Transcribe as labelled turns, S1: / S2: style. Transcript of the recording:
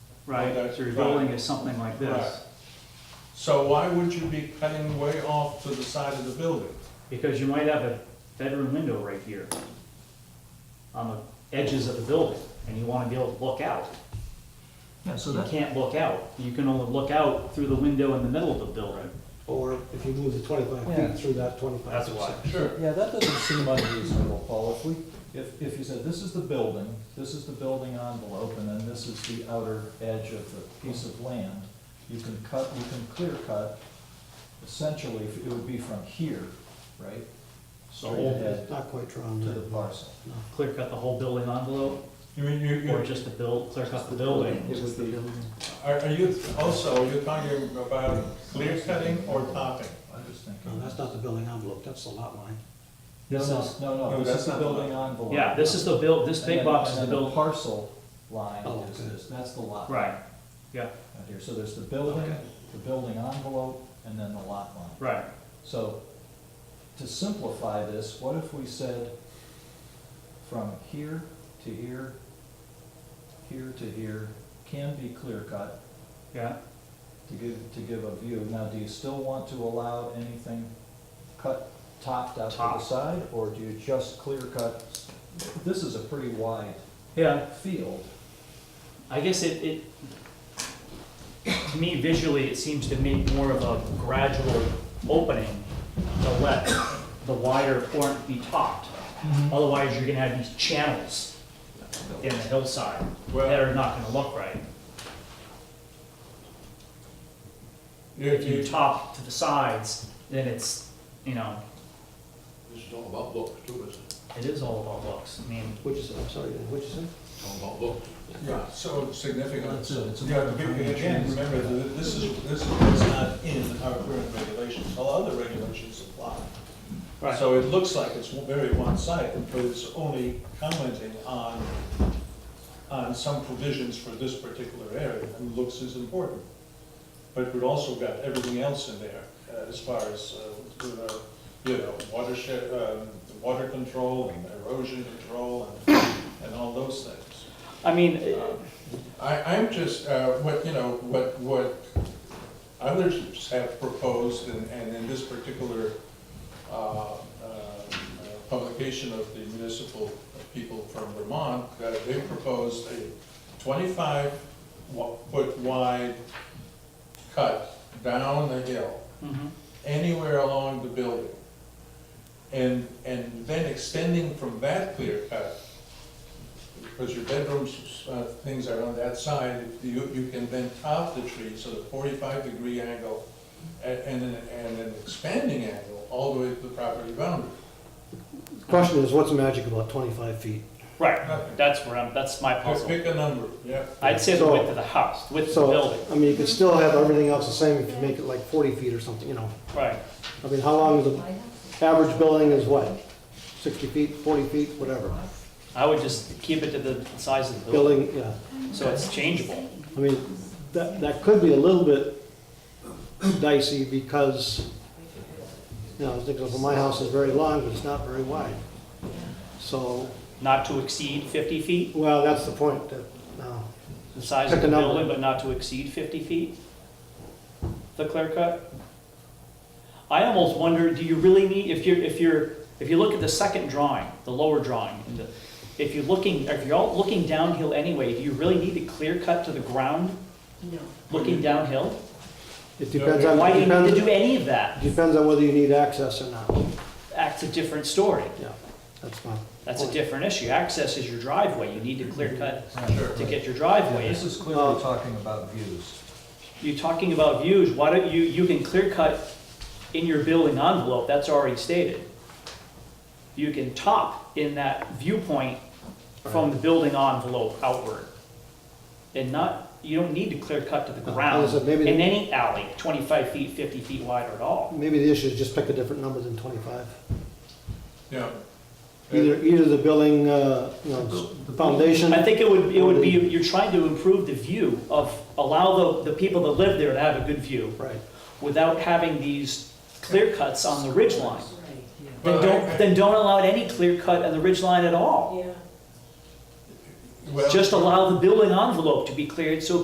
S1: right?
S2: Right,
S1: So your
S2: right.
S1: building is something like this.
S2: So why would you be cutting way off to the side of the building?
S1: Because you might have a bedroom window right here on the edges of the building, and you wanna be able to look out.
S3: Yeah, so
S1: You
S3: that,
S1: can't look out. You can only look out through the window in the middle of the building.
S4: Or if you move the twenty-five
S3: Yeah.
S4: feet through that twenty-five.
S1: That's why.
S2: Sure.
S3: yeah, that doesn't seem unreasonable, Paul, if we, if, if you said, this is the building, this is the building envelope, and then this is the outer edge of the piece of land, you can cut, you can clear cut, essentially, it would be from here, right? Straight
S4: It's
S3: ahead
S4: Not quite drawn
S3: to
S4: there.
S3: the parcel.
S1: Clear cut the whole building envelope,
S2: You mean, you,
S1: or
S2: you,
S1: just the build, clear cut the building.
S3: It would be,
S2: are are you, also, are you talking about clear cutting or topping?
S3: I'm just
S4: No,
S3: thinking.
S4: that's not the building envelope, that's the lot line.
S3: No,
S4: This
S3: no,
S4: is-
S3: no,
S2: No,
S3: no, this
S2: that's
S3: is the
S2: not the-
S3: building envelope.
S1: Yeah, this is the build, this
S3: And
S1: big
S3: then-
S1: box is
S3: and
S1: the
S3: then
S1: build,
S3: parcel line
S4: Oh,
S3: is
S4: okay.
S3: this, that's the lot.
S1: right, yeah,
S3: out here, so there's the building,
S4: Okay.
S3: the building envelope, and then the lot line.
S1: right.
S3: So, to simplify this, what if we said from here to here, here to here, can be clear cut
S1: Yeah,
S3: to give, to give a view. Now, do you still want to allow anything cut, topped out to the
S1: Top.
S3: side, or do you just clear cut? This is a pretty wide
S1: yeah,
S3: field.
S1: I guess it, it, to me visually, it seems to make more of a gradual opening to let the wider front be topped. Otherwise, you're gonna have these channels in the hillside that
S2: Well,
S1: are not gonna look right.
S2: if
S1: If you
S2: you,
S1: top to the sides, then it's, you know,
S5: This is all about books too, isn't it?
S1: it is all about looks. I mean,
S4: What'd you say, I'm sorry, Dan, what'd you say?
S5: It's all about books.
S2: yeah, so significant.
S3: That's it, it's a-
S2: Yeah, but again, remember, that this is, this is what's not in our current regulations, all other regulations apply.
S1: Right.
S2: So it looks like it's very one-sided, but it's only commenting on, on some provisions for this particular area, and looks is important. But we've also got everything else in there, uh, as far as, uh, with our, you know, watershed, um, water control and erosion control and, and all those things.
S1: I mean, uh,
S2: I, I'm just, uh, what, you know, what, what others have proposed, and, and in this particular, uh, uh, publication of the municipal people from Vermont, uh, they proposed a twenty-five wa- foot wide cut down the hill
S1: mhm.
S2: anywhere along the building. And, and then extending from that clear cut, because your bedrooms, uh, things are on that side, you, you can then top the tree, so the forty-five degree angle, and, and an, and an expanding angle all the way to the property boundary.
S4: The Question is, what's magic about twenty-five feet?
S1: right, that's where I'm, that's my
S2: Just
S1: puzzle.
S2: Pick a number, yeah.
S1: I'd say the
S4: So-
S1: width of the house, width of the
S4: So,
S1: building,
S4: I mean, you could still have everything else the same if you make it like forty feet or something, you know?
S1: right.
S4: I mean, how long is the average building is what? Sixty feet, forty feet, whatever.
S1: I would just keep it to the size of the building,
S4: Building, yeah.
S1: so it's changeable.
S4: I mean, that, that could be a little bit dicey because, you know, I was thinking, well, my house is very long, but it's not very wide. So,
S1: Not to exceed 50 feet,
S4: well, that's the point, that, uh, no.
S1: the size of
S4: Pick
S1: the
S4: a number.
S1: building, but not to exceed 50 feet? The clear cut? I almost wonder, do you really need, if you're, if you're, if you look at the second drawing, the lower drawing, and the- if you're looking, if you're all looking downhill anyway, do you really need a clear cut to the ground
S6: No.
S1: looking downhill?
S4: It depends on,
S1: Mm-hmm. Why do you need to do
S4: depends,
S1: any of that?
S4: depends on whether you need access or not.
S1: That's a different story.
S4: Yeah, that's my.
S1: That's a
S4: point.
S1: different issue. Access is your driveway. You need to clear cut
S2: Sure.
S1: to get your
S3: Yeah,
S1: driveway in.
S3: This is clearly talking about views.
S1: You're talking about views, why don't you, you can clear cut in your building envelope, that's already stated. You can top in that viewpoint from the building envelope outward. And not, you don't need to clear cut to the
S4: No,
S1: ground
S4: as I said, maybe-
S1: in any alley, twenty-five feet, fifty feet wide or at all.
S4: Maybe the issue is just pick a different number than twenty-five.
S2: Yeah.
S4: Either, either the building, uh, you know, foundation.
S1: I think it would, it would be, you're trying to improve the view of, allow the, the people that live there to have a good view
S4: Right.
S1: without having these clear cuts on the ridge line.
S6: Right, yeah.
S1: Then
S2: Well,
S1: don't,
S2: I-
S1: then don't allow any clear cut on the ridge line at all.
S6: Yeah.
S2: Well-
S1: Just allow the building envelope to be cleared so